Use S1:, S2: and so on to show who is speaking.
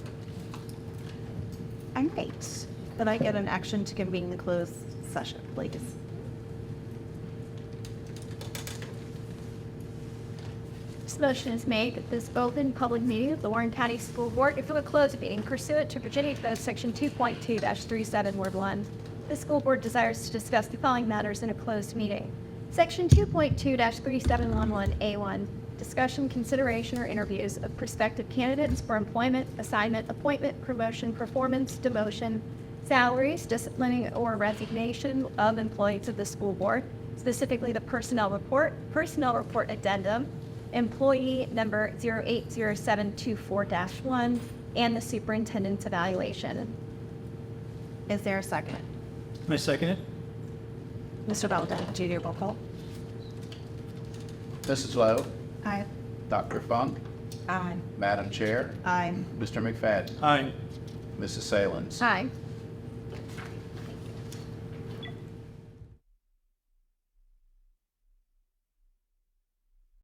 S1: I'm baked, but I get an action to convene the closed session, please.
S2: This motion is made that this open public meeting of the Warren County School Board, if it would close the meeting pursuant to Virginia Code Section 2.2-37, Word 1. The school board desires to discuss the following matters in a closed meeting. Section 2.2-3711A1, discussion, consideration, or interviews of prospective candidates for employment, assignment, appointment, promotion, performance, demotion, salaries, disciplining, or resignation of employees of the school board, specifically the personnel report, personnel report addendum, employee number 080724-1, and the superintendent's evaluation.
S1: Is there a second?
S3: I second it.
S1: Mr. Belden, do you do roll call?
S4: Mrs. Lowe,
S1: Aye.
S4: Dr. Funk,
S1: Aye.
S4: Madam Chair,
S1: Aye.
S4: Mr. McFadden,
S3: Aye.
S4: Mrs. Salins.
S2: Aye.